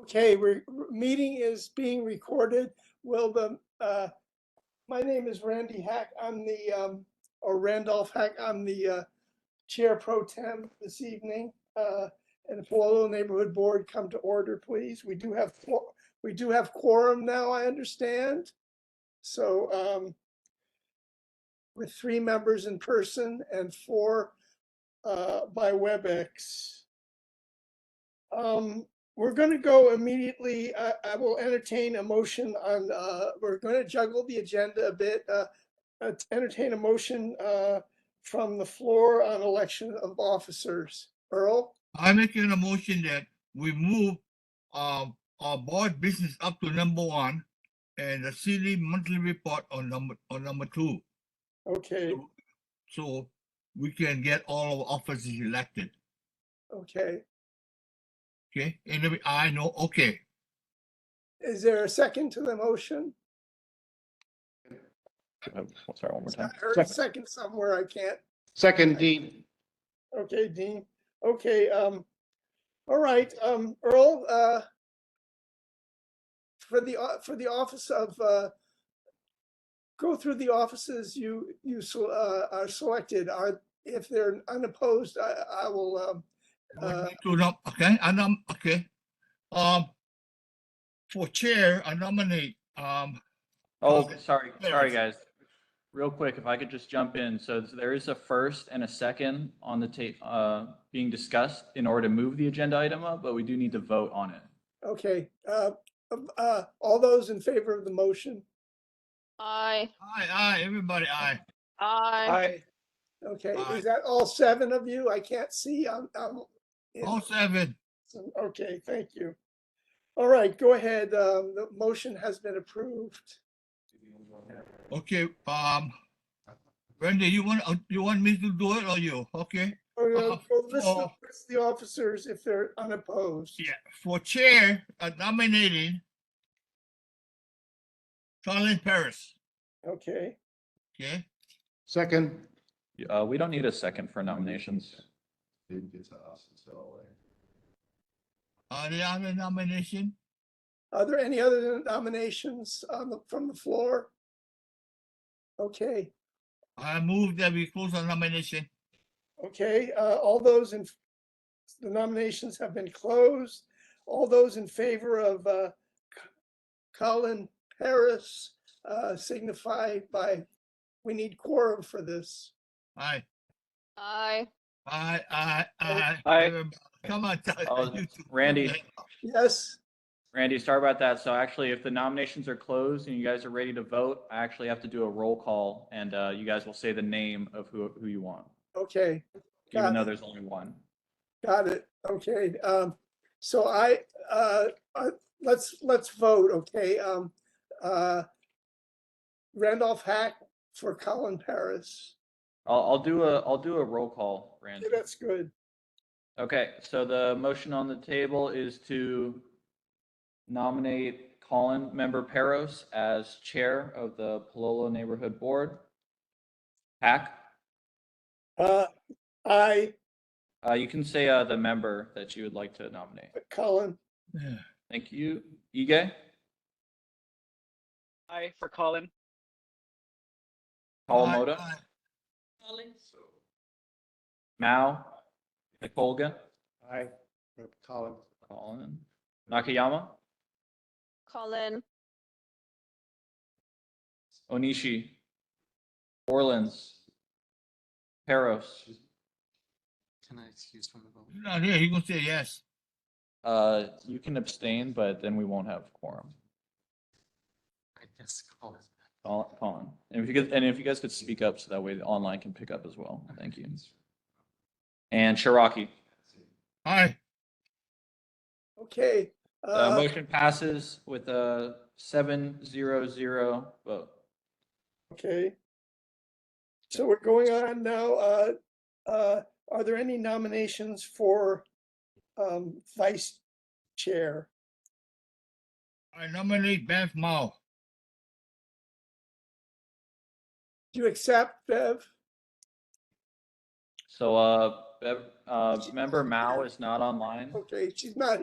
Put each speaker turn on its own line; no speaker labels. Okay, we're, meeting is being recorded. Will the, uh, my name is Randy Hack. I'm the, um, or Randolph Hack. I'm the, uh, Chair Pro Tem this evening. Uh, and the Palolo Neighborhood Board come to order, please. We do have, quor- we do have quorum now, I understand. So, um, with three members in person and four, uh, by WebEx. Um, we're going to go immediately. I, I will entertain a motion on, uh, we're going to juggle the agenda a bit. uh, uh, to Entertain a motion uh, from the floor on election of officers. Earl,
I make an motion that we move uh, our board business up to number one and the city monthly report on number, on number two.
okay,
So we can get all our officers elected,
okay.
okay? And then we- I know, okay,
Is there a second to the motion?
Um, Sorry, one more
I
time.
heard a second somewhere. I can't.
Second, Dean.
Okay, Dean. Okay, um, all right, um, Earl, uh, for the, o- for the office of, uh, go through the offices you, you, so- uh, are selected. Are, if they're unopposed, I, I will, um, uh,
to nom, okay, I nom, okay. Um, for chair, I nominate, um,
Oh,
Okay.
sorry,
There
sorry,
it is.
guys. Real quick, if I could just jump in. So there is a first and a second on the tape, uh, being discussed in order to move the agenda item up, but we do need to vote on it.
okay, uh, um, uh, all those in favor of the motion?
Aye,
aye, aye, everybody, aye.
aye.
Aye.
Okay,
Aye.
is that all seven of you? I can't see, I'm, I'm. in-
All seven,
So, Okay, thank you. All right, go ahead. Um, the motion has been approved.
okay, um. Randy, you want, uh, you want me to do it or you, okay?
We're gonna
Uh,
go list the
well-
list the officers if they're unopposed.
Yeah, for chair, uh, nominating Colin Paris,
Okay,
okay?
Second.
Uh, we don't need a second for nominations.
Uh, the other nomination,
are there any other nominations on the, from the floor? Okay,
I move that we close the nomination.
okay, uh, all those in, the nominations have been closed. All those in favor of, uh, C- Colin Paris, uh, signify by, we need quorum for this.
Aye,
Aye.
aye, aye, aye.
Aye.
everybody. Come on. tell-
Oh,
you two.
Randy.
Yes?
Randy, sorry about that. So actually, if the nominations are closed and you guys are ready to vote, I actually have to do a roll call and, uh, you guys will say the name of who, who you want,
Okay. Got
even
it.
though there's only one.
Got it. Okay. Um, so I, uh, uh, let's, let's vote, okay? Um, uh, Randolph Hack for Colin Paris.
I'll, I'll do a, I'll do a roll call, Randy.
Yeah, That's good.
Okay, so the motion on the table is to nominate Colin, member Peros, as chair of the Palolo Neighborhood Board. Hack,
Uh, I,
uh, you can say, uh, the member that you would like to nominate.
Colin,
Yeah.
Thank you. Ige,
Aye for Colin.
Aye,
Kawamoto,
aye.
Mao, Nicolga,
Aye. Colin.
Colin, Nakayama,
Colin,
Onishi, Orleans, Peros,
Can I excuse from the vote?
He's Not here, he gonna say yes.
uh, you can abstain, but then we won't have quorum.
I guess call is back.
Col- Colin, and if you could, and if you guys could speak up, so that way the online can pick up as well. Thank you. And Cherokee,
Aye,
okay.
the
Uh,
motion passes with a seven zero zero vote.
uh, okay. So we're going on now, uh, uh, are there any nominations for, um, vice chair?
I nominate Beth Mao.
Do you accept, Bev?
So, uh, Bev- uh, member Mao is not online.
Okay, she's not